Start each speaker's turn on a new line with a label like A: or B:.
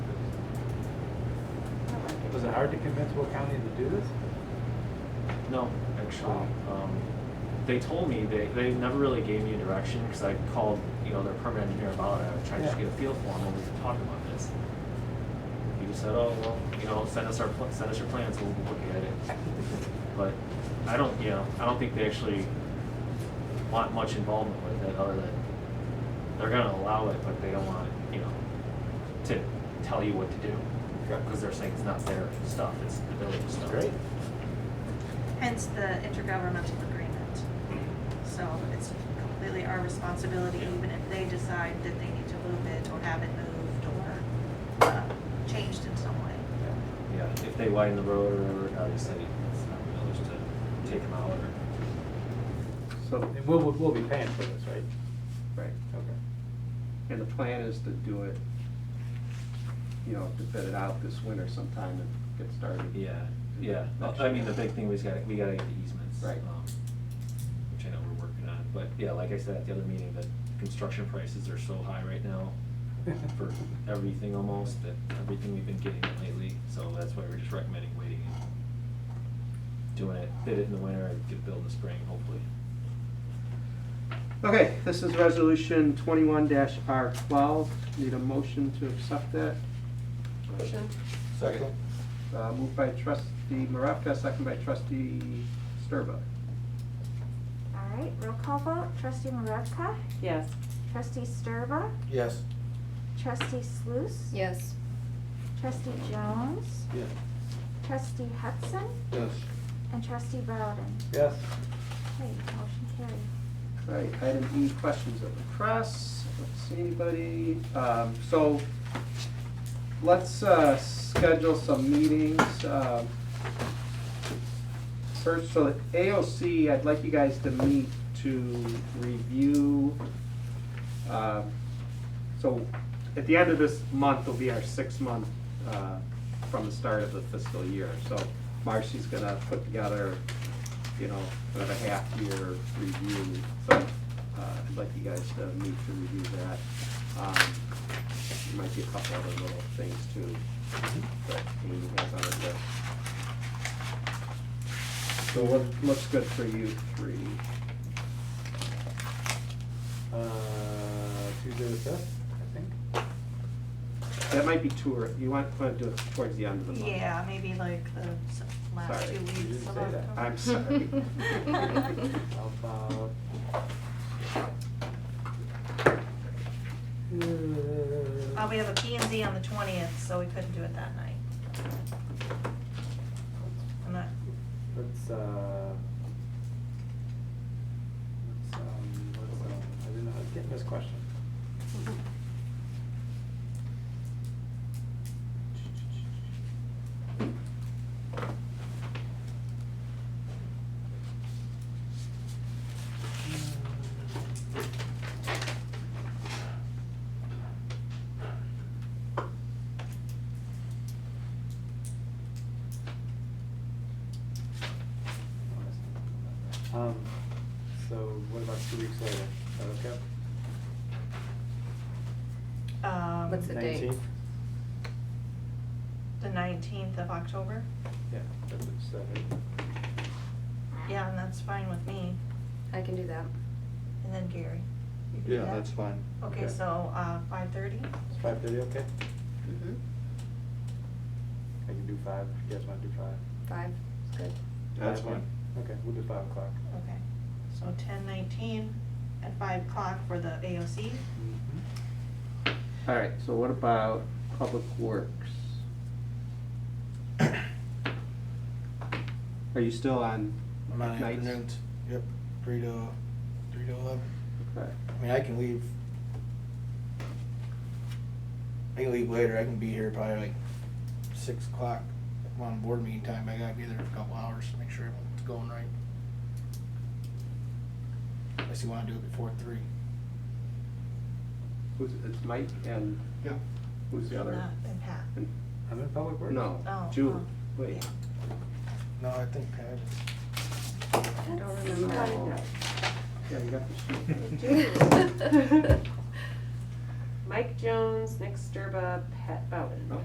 A: it hard to convince Will County to do this?
B: No, actually, um, they told me, they, they never really gave me a direction, cause I called, you know, their permit engineer about it, I tried to just
A: Yeah.
B: get a feel for him when we were talking about this. He just said, oh, well, you know, send us our, pl- send us your plans, we'll look at it. But I don't, you know, I don't think they actually want much involvement with it, other than they're gonna allow it, but they don't want, you know, to tell you what to do.
A: Okay.
B: Cause they're saying it's not their stuff, it's the village's stuff.
A: Great.
C: Hence the intergovernmental agreement. So it's completely our responsibility,
B: Yeah.
C: even if they decide that they need to move it or have it moved or uh, changed in some way.
B: Yeah, if they widen the road or whatever, obviously, it's not the village to take them out or.
D: So,
A: And we'll, we'll- we'll be paying for this, right?
D: right,
A: Okay.
D: and the plan is to do it, you know, to bid it out this winter sometime and get started.
B: Yeah, yeah, Well, I mean, the big thing was gotta, we gotta get the easements.
D: Right.
B: um, Which I know we're working on, but yeah, like I said at the other meeting, the construction prices are so high right now for everything almost, that everything we've been getting lately, so that's why we're just recommending waiting and doing it, bid it in the winter, and get billed in the spring, hopefully.
D: Okay, this is resolution twenty-one dash R twelve, need a motion to accept that.
E: Motion.
A: Second.
D: Uh, moved by trustee Maravka, second by trustee Sturba.
F: All right, roll call vote, trustee Maravka,
E: Yes.
F: trustee Sturba,
A: Yes.
F: trustee Sluse.
E: Yes.
F: Trustee Jones,
A: Yes.
F: trustee Hudson,
A: Yes.
F: and trustee Bowden.
A: Yes.
F: Okay, motion carried.
D: Right, item E, questions of the press, let's see anybody, um, so, let's, uh, schedule some meetings, um, search, so the AOC, I'd like you guys to meet to review, um, so, at the end of this month will be our six-month, uh, from the start of the fiscal year, so Marcy's gonna put together you know, kind of a half-year review, so uh, I'd like you guys to meet to review that. Um, There might be a couple other little things too, that we need guys on it list. So what looks good for you three?
A: Uh, Tuesday the fifth, I think.
D: That might be too early, you want, want to do it towards the end of the month?
C: Yeah, maybe like the s- last
D: Sorry,
C: two
D: you
C: weeks
A: didn't
C: of
A: say that.
C: October.
D: I'm sorry.
A: How about?
C: Uh, we have a P and Z on the twentieth, so we couldn't do it that night. I'm not,
A: Let's, uh, let's, um, let's, um, I didn't know I was getting this question. Um, so what about two weeks later? Is that okay?
C: um,
E: What's the date?
A: Nineteenth?
C: the nineteenth of October?
A: Yeah, that's what you said.
C: Yeah, and that's fine with me,
E: I can do that.
C: and then Gary. You do
G: Yeah,
C: that?
G: that's fine.
C: Okay,
A: Okay.
C: so, uh, five thirty?
A: Is five thirty okay?
E: Mm-hmm.
A: I can do five, if you guys wanna do five.
E: Five, it's good.
G: That's
A: Five,
G: fine.
A: Okay, we'll do five o'clock.
C: Okay, so ten nineteen at five o'clock for the AOC.
D: Mm-hmm. All right, so what about Public Works? Are you still on
G: I'm on
D: nights?
G: afternoons, yep, three to, three to eleven.
D: Okay.
G: I mean, I can leave. I can leave later, I can be here probably like six o'clock. If I'm on board meeting time, I gotta be there for a couple hours to make sure everything's going right. Unless you wanna do it before three.
D: Who's, it's Mike and
G: Yeah.
D: who's the other?
C: Matt And Pat.
A: I'm in Public Works.
D: No,
C: Oh,
D: Julie,
C: oh,
D: wait.
G: No, I think Pat is.
E: I don't
D: Oh.
E: remember.
D: Yeah, you got the sheet.
H: Mike Jones, Nick Sturba, Pat Bowden.